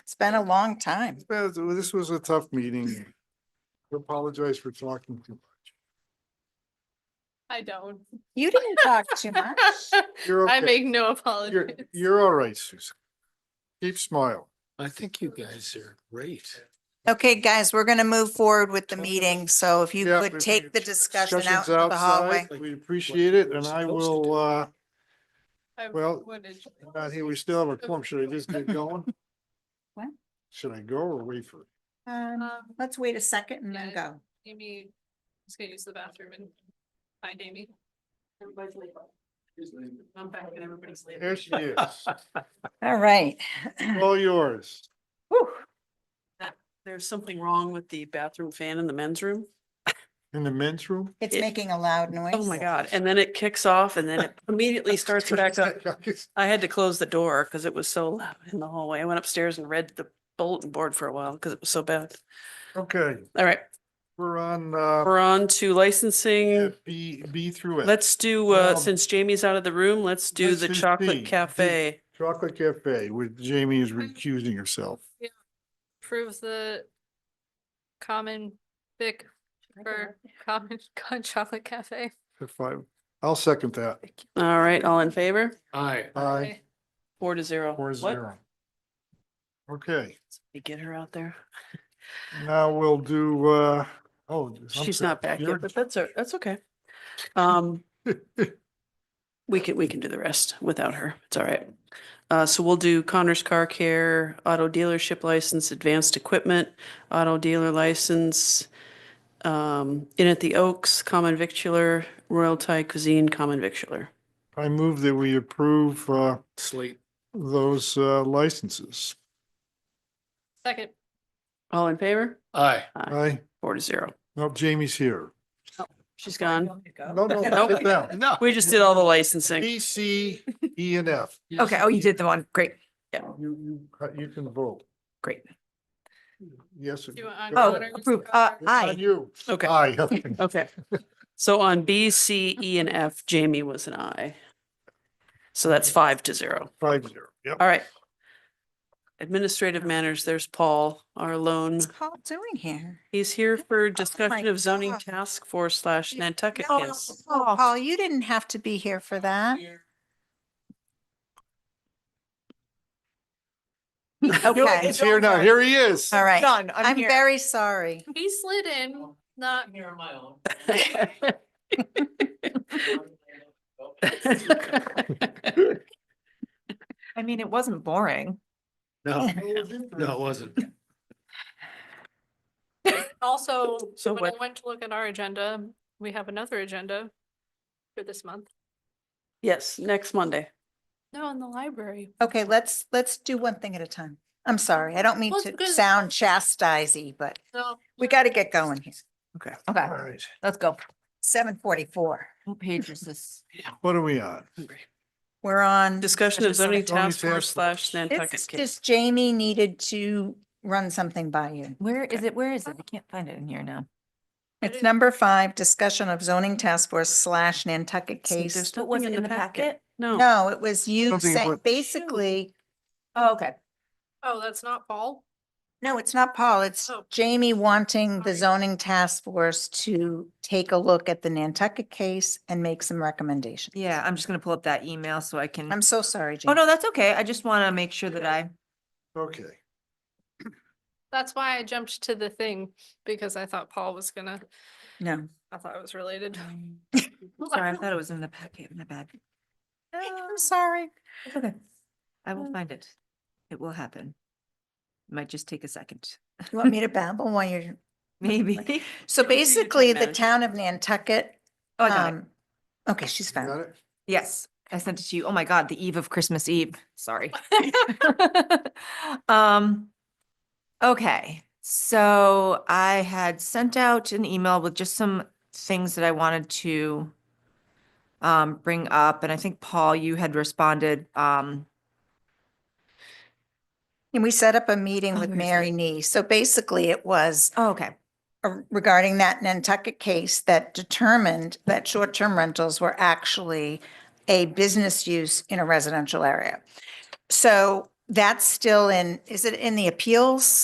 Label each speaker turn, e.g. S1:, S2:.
S1: It's been a long time.
S2: Yeah, th- This was a tough meeting. I Apologize for talking too much.
S3: I don't.
S1: You didn't talk too much.
S2: You're
S3: I
S2: okay.
S3: make no
S2: You're,
S3: apologies.
S2: you're all right, Susan. Keep smiling.
S4: I think you guys are great.
S1: Okay, guys, we're gonna move forward with the meeting, so if you
S2: Yeah,
S1: could
S2: if
S1: take
S2: you-
S1: the discussion out
S2: Discussion's
S1: into the hallway.
S2: outside. We appreciate it and I will, uh,
S3: I
S2: well,
S3: would enjoy it.
S2: not here, we still have a clump. Should I just get going?
S1: What?
S2: Should I go or wait for? it?
S1: Um,
S3: Um,
S1: let's wait a second and then
S3: yeah.
S1: go.
S3: Amy, just gonna use the bathroom and find Amy. Everybody's leaving. I'm back and everybody's leaving.
S2: There she is.
S1: All right.
S2: All yours.
S1: Whew.
S5: There's something wrong with the bathroom fan in the men's room.
S2: In the men's room?
S1: It's
S5: It-
S1: making a loud noise.
S5: Oh my God. And then it kicks off and then it immediately starts back up. I had to close the door because it was so loud in the hallway. I went upstairs and read the bulletin board for a while because it was so bad.
S2: Okay,
S5: All right,
S2: we're on, uh,
S5: we're on to licensing.
S2: B, B through F.
S5: Let's do, uh,
S2: Um,
S5: since Jamie's out of the room, let's do
S2: let's
S5: the
S2: do D,
S5: chocolate
S2: D.
S5: cafe.
S2: Chocolate Cafe with Jamie is recusing herself.
S3: Approve the common vic for common con chocolate cafe.
S2: If I, I'll second that.
S5: All right, all in favor?
S4: Aye.
S2: Aye,
S3: Okay.
S5: Four to zero.
S2: four
S5: What?
S2: zero. Okay,
S5: We Get her out there.
S2: now we'll do, uh, oh. I'm
S5: She's
S2: sorry,
S5: not back
S2: you're-
S5: yet, but that's, o- that's okay. Um, we can, we can do the rest without her. It's all right. Uh, so we'll do Connor's Car Care, Auto Dealership License, Advanced Equipment, Auto Dealer License, um, In at the Oaks, Common Victular, Royal Thai Cuisine, Common Victular.
S2: I move that we approve, uh,
S4: Slate.
S2: those, uh, licenses.
S3: Second,
S5: All in favor?
S4: Aye.
S2: Aye,
S5: Four to zero.
S2: no, Jamie's here.
S5: She's gone.
S2: No, no,
S5: Nope.
S2: sit down.
S4: No.
S5: We just did all the licensing.
S2: B, C, E, and F.
S6: Okay, oh, you did the one, great,
S2: You, you, uh, you can vote.
S6: great.
S2: Yes.
S3: do you want
S6: Oh,
S3: on?
S6: approve. Uh,
S2: It's on
S6: aye.
S2: You.
S5: Okay.
S2: Aye.
S5: Okay. So on B, C, E, and F, Jamie was an I. So that's five to zero.
S2: Five zero, yep.
S5: All right. Administrative manners, there's Paul, our loan.
S1: What's Paul doing here?
S5: He's here for discussion of zoning
S1: Oh God.
S5: task force slash Nantucket
S1: No,
S5: case.
S1: Paul, Paul, you didn't have to be here for that. Okay,
S2: He's here now, here he is.
S1: all right.
S6: Done, I'm
S1: I'm
S6: here.
S1: very sorry.
S3: He slid in, not
S6: I mean, it wasn't boring.
S4: No, no, it wasn't.
S3: Also,
S5: So
S3: when I
S5: what-
S3: went to look at our agenda, we have another agenda for this month.
S5: Yes, next Monday.
S3: No, in the library.
S1: Okay, let's, let's do one thing at a time. I'm sorry. I don't mean
S3: Well,
S1: to
S3: it's good.
S1: sound chastisey, but
S3: So.
S1: we got to get going here.
S6: Okay,
S2: All right,
S6: let's go.
S1: Seven forty-four.
S6: What page is this?
S2: what are we on?
S1: We're on.
S5: Discussion of zoning
S2: Zoning
S5: task
S2: task
S5: force slash
S2: force.
S5: Nantucket
S1: It's
S5: case.
S1: just Jamie needed to run something by you.
S6: Where is it? Where is it? I can't find it in here now.
S1: It's
S3: didn't-
S1: number five, discussion of zoning task force slash Nantucket
S5: See,
S1: case.
S5: there's
S6: But was
S5: nothing
S6: it in the packet?
S5: No,
S1: No, it was you
S2: Something
S1: saying,
S2: about-
S1: basically,
S6: Oh, okay.
S3: Oh, that's not Paul?
S1: no, it's not Paul, it's
S3: Oh.
S1: Jamie wanting the
S3: Sorry.
S1: zoning task force to take a look at the Nantucket case and make some recommendations.
S6: Yeah, I'm just gonna pull up that email so I can.
S1: I'm so sorry,
S6: Oh,
S1: Jamie.
S6: no, that's okay. I just want to make sure that I,
S2: Okay,
S3: That's why I jumped to the thing, because I thought Paul was gonna,
S1: No.
S3: I thought it was related.
S6: sorry, I thought it was in the packet, my bad.
S1: I'm sorry.
S6: It's okay. Uh, I will find it. It will happen. Might just take a second,
S1: You want me to babble while you're,
S6: maybe.
S1: so
S5: Don't be a time
S1: basically, the
S5: manager.
S1: town of Nantucket,
S6: Oh, I got it.
S1: um, okay, she's
S2: you
S1: found
S2: got
S1: it.
S2: it?
S6: Yes, I sent it to you. Oh my God, the eve of Christmas Eve. Sorry. Um, okay, so I had sent out an email with just some things that I wanted to um, bring up, and I think Paul, you had responded, um,
S1: And we set up a meeting
S6: Oh,
S1: with
S6: where is it?
S1: Mary Nee. So basically, it was
S6: oh, okay,
S1: uh, regarding that Nantucket case that determined that short-term rentals were actually a business use in a residential area. So that's still in, is it in the appeals?